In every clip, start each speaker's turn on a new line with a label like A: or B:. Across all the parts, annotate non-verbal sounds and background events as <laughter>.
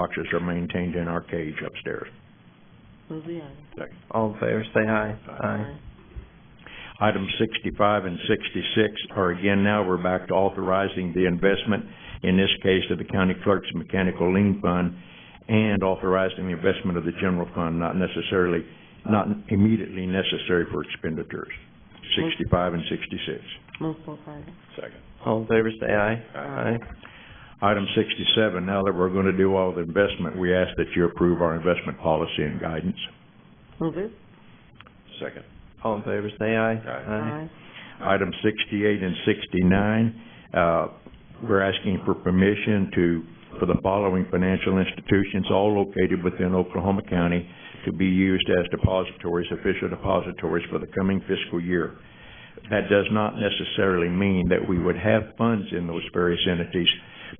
A: boxes are maintained in our cage upstairs.
B: Move the item.
C: All in favor, say aye. Aye.
A: Item sixty-five and sixty-six are again now, we're back to authorizing the investment, in this case of the county clerk's mechanical lien fund, and authorizing the investment of the general fund, not necessarily, not immediately necessary for expenditures. Sixty-five and sixty-six.
B: Move both items.
C: All in favor, say aye.
B: Aye.
A: Item sixty-seven, now that we're gonna do all the investment, we ask that you approve our investment policy and guidance.
B: Move it.
A: Second.
C: All in favor, say aye. Aye.
A: Item sixty-eight and sixty-nine, uh, we're asking for permission to, for the following financial institutions, all located within Oklahoma County, to be used as depositories, official depositories for the coming fiscal year. That does not necessarily mean that we would have funds in those various entities,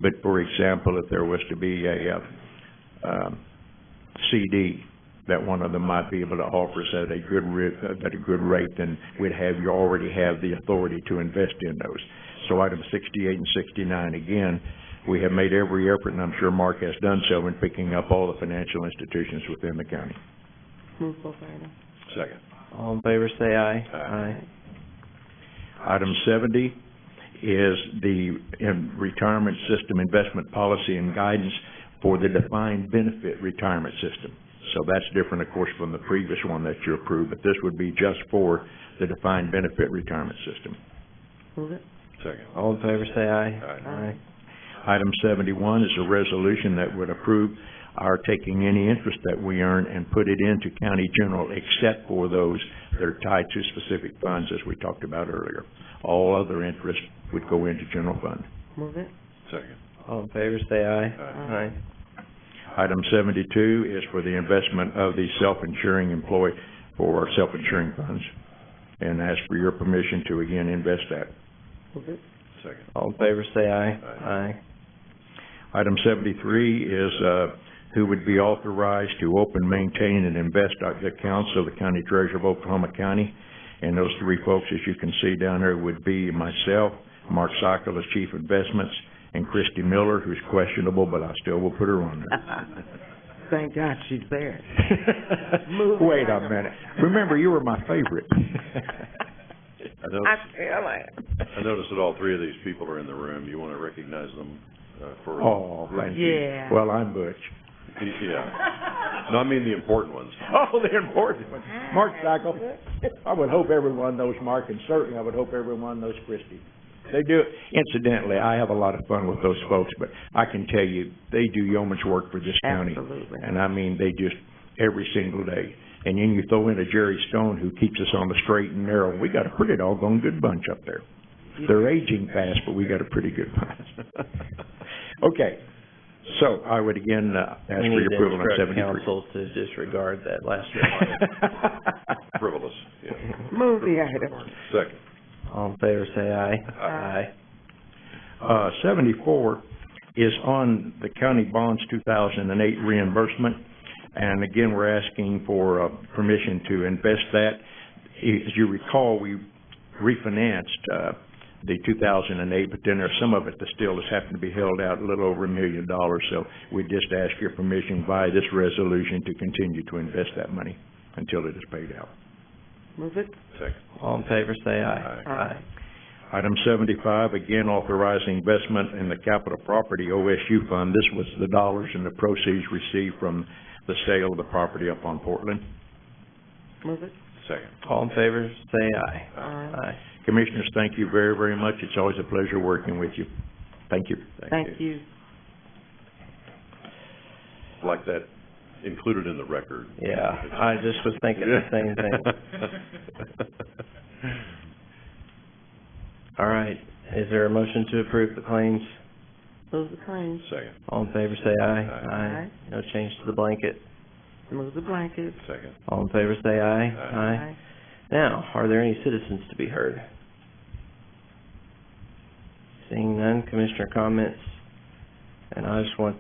A: but for example, if there was to be a, uh, um, CD, that one of them might be able to offer us at a good ri- uh, at a good rate, then we'd have, you already have the authority to invest in those. So item sixty-eight and sixty-nine, again, we have made every effort, and I'm sure Mark has done so, in picking up all the financial institutions within the county.
B: Move both items.
A: Second.
C: All in favor, say aye.
A: Aye. Item seventy is the in- retirement system investment policy and guidance for the defined benefit retirement system. So that's different, of course, from the previous one that you approved, but this would be just for the defined benefit retirement system.
B: Move it.
A: Second.
C: All in favor, say aye.
B: Aye.
A: Item seventy-one is a resolution that would approve our taking any interest that we earn and put it into county general except for those that are tied to specific funds, as we talked about earlier. All other interest would go into general fund.
B: Move it.
A: Second.
C: All in favor, say aye. Aye.
A: Item seventy-two is for the investment of the self-insuring employee for our self-insuring funds. And ask for your permission to again invest that.
B: Move it.
A: Second.
C: All in favor, say aye.
A: Aye. Item seventy-three is, uh, who would be authorized to open, maintain, and invest at the council of the county treasurer of Oklahoma County. And those three folks, as you can see down there, would be myself, Mark Sockel as chief investments, and Christy Miller, who's questionable, but I still will put her on there.
B: Thank God she's there.
A: <laughs>
B: Move
A: Wait a
B: item.
A: minute. Remember, you were my <laughs> favorite.
D: I noticed,
B: I feel it.
D: I noticed that all three of these people are in the room. You want to recognize them, uh, for.
A: Oh, thank you.
B: Yeah.
A: Well, I'm Butch.
D: <laughs> Yeah. No, I mean the important ones.
A: Oh, the important one. Mark Sockel. I would hope everyone knows Mark, and certainly I would hope everyone knows Christie. They do, incidentally, I have a lot of fun with those folks, but I can tell you, they do yeoman's work for this county.
B: Absolutely.
A: And I mean, they just, every single day. And then you throw in a Jerry Stone who keeps us on the straight and narrow. We got a pretty doggone good bunch up there. They're aging fast, but we got a pretty good bunch. <laughs> Okay, so I would again, uh, ask for
C: We need
A: your
C: to
A: approval on
C: instruct
A: seventy-three.
C: council to disregard that last remark. <laughs>
A: <laughs> Council.
D: Frivolous, yeah.
B: Move the item.
D: Second.
C: All in favor, say aye.
B: Aye.
A: Uh, seventy-four is on the county bonds two thousand and eight reimbursement. And again, we're asking for, uh, permission to invest that. As you recall, we refinanced, uh, the two thousand and eight, but then there's some of it that still has happened to be held out a little over a million dollars. So we just ask your permission by this resolution to continue to invest that money until it is paid out.
B: Move it.
D: Second.
C: All in favor, say aye.
B: Aye.
A: Item seventy-five, again authorizing investment in the capital property OSU fund. This was the dollars and the proceeds received from the sale of the property up on Portland.
B: Move it.
D: Second.
C: All in favor, say aye.
B: Aye.
C: Aye.
A: Commissioners, thank you very, very much. It's always a pleasure working with you. Thank you.
B: Thank you.
D: Like that included in the record.
C: Yeah, I just was thinking the same
D: <laughs>
C: thing. All right, is there a motion to approve the claims?
B: Move the claims.
D: Second,
C: All in favor, say aye.
B: Aye.
C: No change to the blanket.
B: Move the blankets.
D: second.
C: All in favor, say aye.
D: Aye.
C: Now, are there any citizens to be heard? Seeing none, commissioner comments. And I just want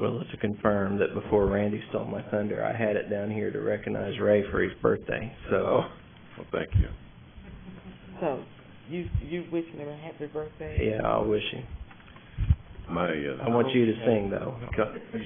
C: Willa to confirm that before Randy stole my thunder, I had it down here to recognize Ray for his birthday, so.
D: Well, thank you.
B: So, you, you wishing him a happy birthday?
C: Yeah, I'll wish him.
D: my, uh.
C: I want you to sing, though.
D: <laughs> Cut.